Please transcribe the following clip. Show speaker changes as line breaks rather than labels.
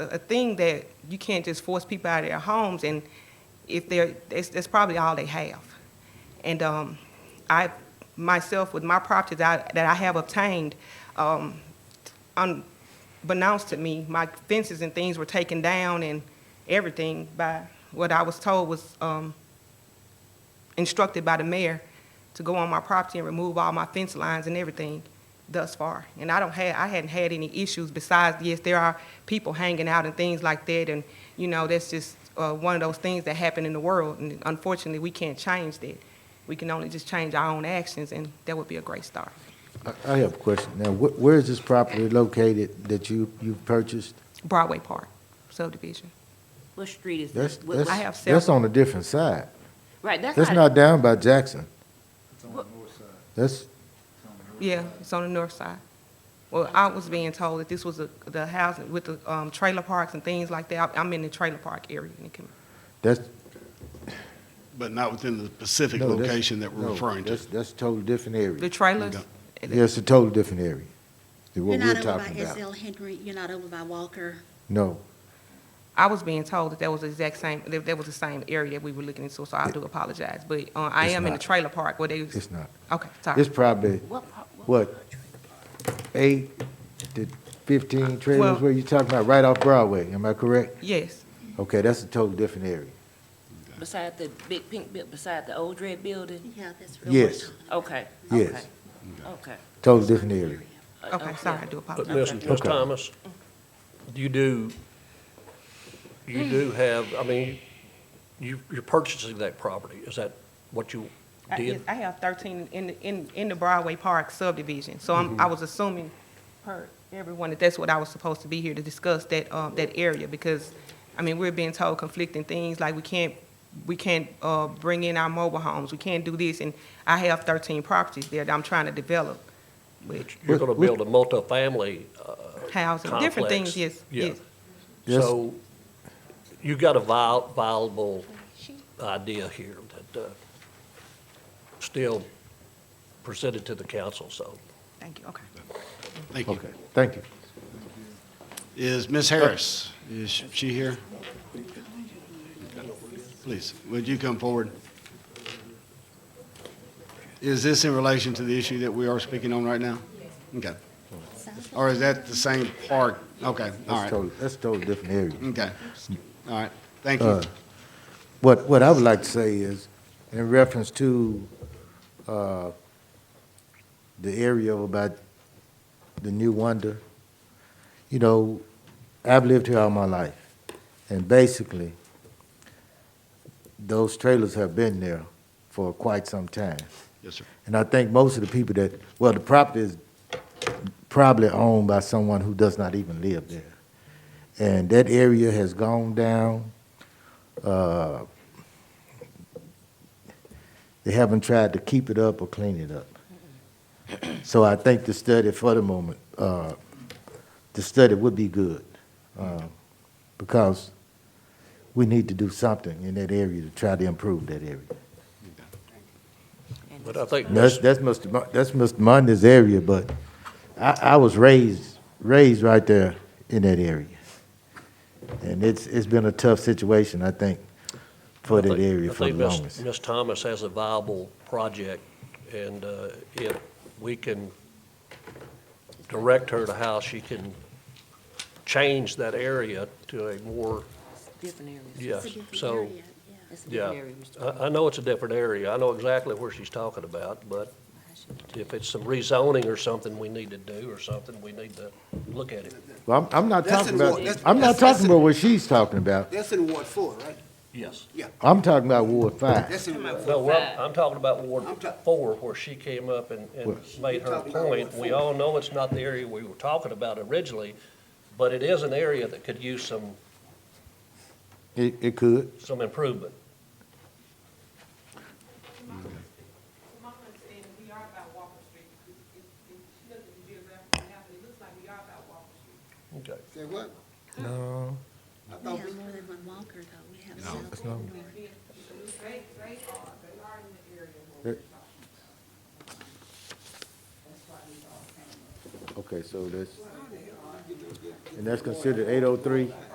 a, a thing that you can't just force people out of their homes, and if they're, that's, that's probably all they have. And um, I, myself, with my properties that I, that I have obtained, um, unbeknownst to me, my fences and things were taken down and everything by what I was told was um, instructed by the mayor to go on my property and remove all my fence lines and everything thus far. And I don't have, I hadn't had any issues besides, yes, there are people hanging out and things like that, and, you know, that's just uh, one of those things that happen in the world, and unfortunately, we can't change that. We can only just change our own actions, and that would be a great start.
I, I have a question. Now, wh- where is this property located that you, you purchased?
Broadway Park subdivision.
What street is
That's,
that? What-
that's,
I have
that's
several.
on a different side.
Right, that's
That's
not,
not down by Jackson.
It's on the north side.
That's,
It's on the north
Yeah,
side.
it's on the north side. Well, I was being told that this was a- the house with the um, trailer parks and things like that. I- I'm in the trailer park area. and it can-
that's.
But not within the specific
no, that's-
location that we're
no,
referring to.
That's, that's a totally different area.
The trailers?
Yeah, it's a totally different area than
You're
what
not
we're
over
talking
by
about.
SL Henry, you're not over by Walker.
No,
I was being told that that was the exact same, that that was the same area that we were looking into, so I do apologize. But uh, I
It's
am in the
not.
trailer park where they, was-
it's not.
okay, sorry.
It's probably,
what, part- what-
what, eight to fifteen
Well-
trailers, where you talking about, right off Broadway, am I correct?
Yes,
Okay, that's a totally different area.
beside the big pink, bu- beside the old red building?
Yeah, that's real.
Yes,
Okay, okay.
yes,
Okay.
totally different area.
Uh,
okay, sorry, I do
But
apologize.
listen, Ms.
Okay.
Thomas, you do, you do have, I mean, you, you're purchasing that property. Is that what you
I- Uh, yes,
did?
I have 13 in, the- in, in the Broadway Park subdivision, so I'm,
Mm-hmm.
I was assuming per everyone that that's what I was supposed to be here to discuss that, uh, that area, because, I mean, we're being told conflicting things, like we can't, we can't, uh, bring in our mobile homes, we can't do this, and I have 13 properties there that I'm trying to develop, but
You're gonna build a multifamily, uh,
housing, different things,
Complex,
yes,
yeah.
yes.
Yes.
so you got a viable, viable idea here that, uh, still presented to the council, so.
Thank you, okay.
Thank you.
Okay, thank you.
Is Ms. Harris, is she here? Please, would you come forward? Is this in relation to the issue that we are speaking on right now? Okay. Or is that the same part? Okay, all
That's
right.
totally, that's totally different area.
Okay, all right. Thank you.
Uh, What, what I would like to say is, in reference to, uh, the area of about the new wonder, you know, I've lived here all my life, and basically, those trailers have been there for quite some time.
Yes, sir.
And I think most of the people that, well, the property is probably owned by someone who does not even live there. And that area has gone down. Uh, They haven't tried to keep it up or clean it up. So I think the study for the moment, uh, the study would be good. uh, Because we need to do something in that area to try to improve that area.
And
But I think
That's, that's Mr. Mon- that's Mr. Mundy's area, but I, I was raised, raised right there in that area. And it's, it's been a tough situation, I think, for
I
that
think-
area
I
for
think
the
Ms.
longest.
Ms. Thomas has a viable project, and uh, if we can direct her to how she can change that area to a more,
Different areas.
It's
yes,
a different
so,
area, yeah.
It's a
yeah. Uh,
different area. Mr.
I, I know it's a different area, I know exactly where she's talking about, but if it's some rezoning or something we need to do or something, we need to look at it.
Well, I'm, I'm not
That's
talking
in
about,
Ward- that's-
I'm not
that's- that's
talking
in-
about what she's talking about.
That's in Ward Four, right?
Yes.
I'm talking about Ward Five.
That's in Ward.
No, well, I'm talking about Ward
I'm ta-
Four, where she came up and, and
What?
made
You're
her
talking about Ward
point. We
four.
all know it's not the area we were talking about originally, but it is an area that could use some,
It, it could.
some improvement.
From my understanding, we are about Walker Street. If, if, if she looked at the geographical map, it looks like we are about Walker Street.
Okay.
Say what?
No.
I
We
thought
have
we-
more than one Walker, though. We have South and North.
They, they are, they are in the area where
we're Okay, so that's, and that's considered eight oh three?